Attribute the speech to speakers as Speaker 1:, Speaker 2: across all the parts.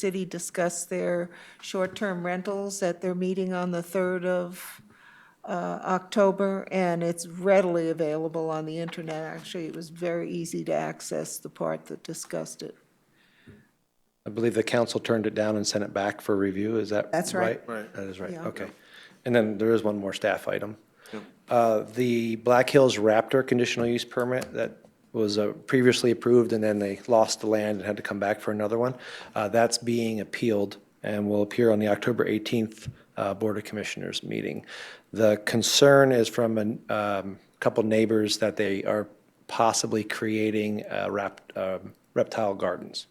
Speaker 1: city discussed their short-term rentals at their meeting on the 3rd of uh, October, and it's readily available on the internet. Actually, it was very easy to access the part that discussed it.
Speaker 2: I believe the council turned it down and sent it back for review, is that?
Speaker 1: That's right.
Speaker 2: Right, that is right,
Speaker 1: Yeah.
Speaker 2: okay. And then there is one more staff item. Uh, The Black Hills Raptor conditional use permit that was uh, previously approved, and then they lost the land and had to come back for another one. uh, That's being appealed and will appear on the October 18th uh, Board of Commissioners meeting. The concern is from a um, couple neighbors that they are possibly creating uh, rap- um, reptile gardens.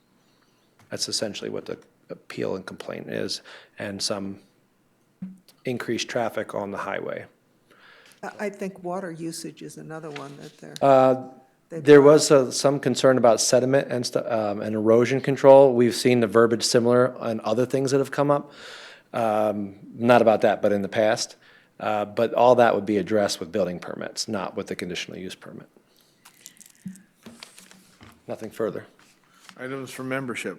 Speaker 2: That's essentially what the appeal and complaint is, and some increased traffic on the highway.
Speaker 1: I- I think water usage is another one that they're.
Speaker 2: There was uh, some concern about sediment and stu- um, and erosion control. We've seen the verbiage similar on other things that have come up. Um, Not about that, but in the past. Uh, But all that would be addressed with building permits, not with the conditional use permit. Nothing further.
Speaker 3: Items for membership.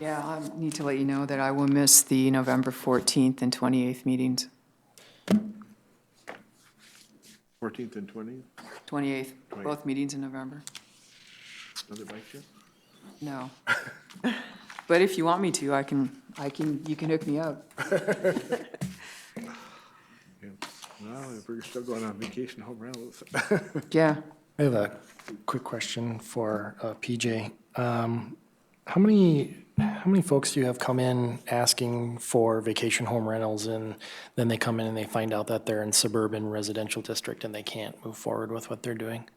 Speaker 4: Yeah, I need to let you know that I will miss the November 14th and 28th meetings.
Speaker 3: 14th and 20th,
Speaker 4: 28th,
Speaker 3: Right.
Speaker 4: both meetings in November.
Speaker 3: another bike trip?
Speaker 4: No. But if you want me to, I can, I can, you can hook me up.
Speaker 3: Yeah. Well, if we're still going on vacation, home rental.
Speaker 4: Yeah.
Speaker 5: I have a quick question for uh, PJ. Um, How many, how many folks do you have come in asking for vacation home rentals and then they come in and they find out that they're in suburban residential district and they can't move forward with what they're doing?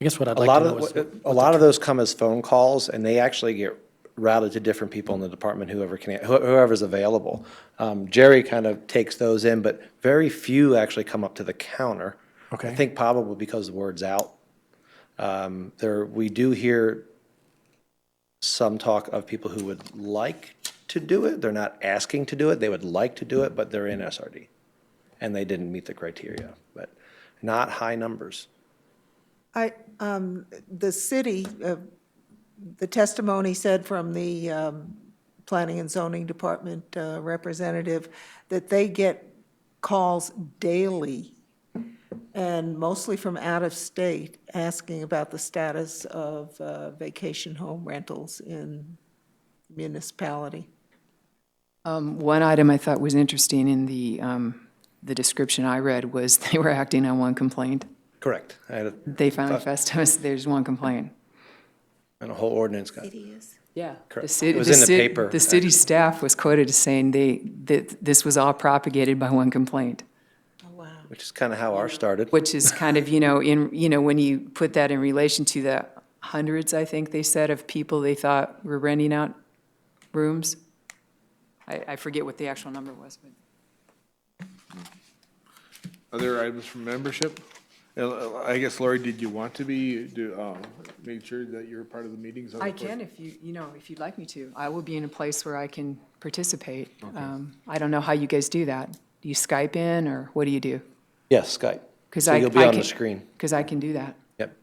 Speaker 5: I guess what I'd
Speaker 2: A
Speaker 5: like
Speaker 2: lot
Speaker 5: to know is.
Speaker 2: of, a lot of those come as phone calls, and they actually get routed to different people in the department, whoever can, who- whoever's available. Um, Jerry kind of takes those in, but very few actually come up to the counter. I
Speaker 5: Okay.
Speaker 2: think probably because the word's out. Um, There, we do hear some talk of people who would like to do it. They're not asking to do it. They would like to do it, but they're in SRD. And they didn't meet the criteria, but not high numbers.
Speaker 1: I, um, the city, uh, the testimony said from the, um, Planning and Zoning Department uh, representative that they get calls daily and mostly from out of state asking about the status of, uh, vacation home rentals in municipality.
Speaker 4: Um, One item I thought was interesting in the, um, the description I read was they were acting on one complaint.
Speaker 2: Correct. I had a
Speaker 4: They found Festus, there's one complaint.
Speaker 2: And a whole ordinance got,
Speaker 4: Yeah.
Speaker 2: Correct.
Speaker 4: city,
Speaker 2: It was in the paper,
Speaker 4: The city
Speaker 2: actually.
Speaker 4: staff was quoted as saying they, that this was all propagated by one complaint.
Speaker 1: Oh, wow.
Speaker 2: which is kind of how ours started.
Speaker 4: Which is kind of, you know, in, you know, when you put that in relation to the hundreds, I think they said, of people they thought were renting out rooms. I, I forget what the actual number was, but.
Speaker 3: Other items for membership? Uh, I guess, Lori, did you want to be, do, uh, make sure that you're part of the meetings? on the
Speaker 4: I
Speaker 3: fourth?
Speaker 4: can if you, you know, if you'd like me to. I will be in a place where I can participate. Um, I don't know how you guys do that. Do you Skype in, or what do you do?
Speaker 2: Yes, Skype.
Speaker 4: 'Cause
Speaker 2: So
Speaker 4: I-
Speaker 2: you'll be
Speaker 4: I
Speaker 2: on the
Speaker 4: can-
Speaker 2: screen.
Speaker 4: Because I can do that.
Speaker 2: Yep.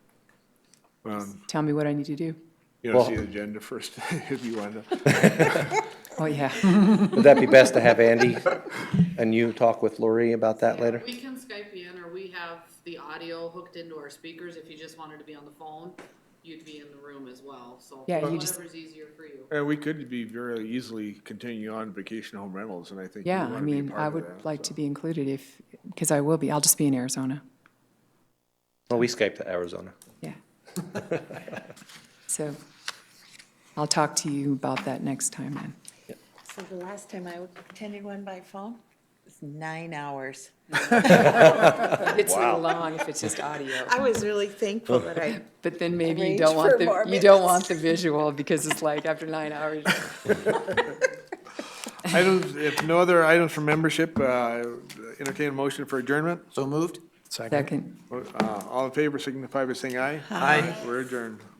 Speaker 3: Um,
Speaker 4: Tell me what I need to do.
Speaker 3: You know, see the
Speaker 2: Well-
Speaker 3: agenda first, if you want to.
Speaker 4: Oh, yeah.
Speaker 2: Would that be best to have Andy and you talk with Lori about that later?
Speaker 6: We can Skype you in, or we have the audio hooked into our speakers, if you just wanted to be on the phone, you'd be in the room as well, so.
Speaker 4: Yeah, you just-
Speaker 6: Whatever's easier for you.
Speaker 3: Uh, we could be very easily continue on vacation home rentals, and I think you
Speaker 4: Yeah,
Speaker 3: want
Speaker 4: I
Speaker 3: to be
Speaker 4: mean, I
Speaker 3: part of
Speaker 4: would
Speaker 3: that.
Speaker 4: like to be included if, because I will be, I'll just be in Arizona.
Speaker 2: Well, we Skype to Arizona.
Speaker 4: Yeah. So I'll talk to you about that next time then.
Speaker 7: So the last time I attended one by phone was nine hours.
Speaker 4: It's long if it's just audio.
Speaker 7: I was really thankful that I
Speaker 4: But then maybe you
Speaker 7: Arrange
Speaker 4: don't want
Speaker 7: for
Speaker 4: the,
Speaker 7: more
Speaker 4: you don't
Speaker 7: minutes.
Speaker 4: want the visual because it's like after nine hours.
Speaker 3: Items, if no other items for membership, uh, entertain a motion for adjournment.
Speaker 4: Second.
Speaker 3: Uh, All in favor signify by saying aye. Aye. We're adjourned.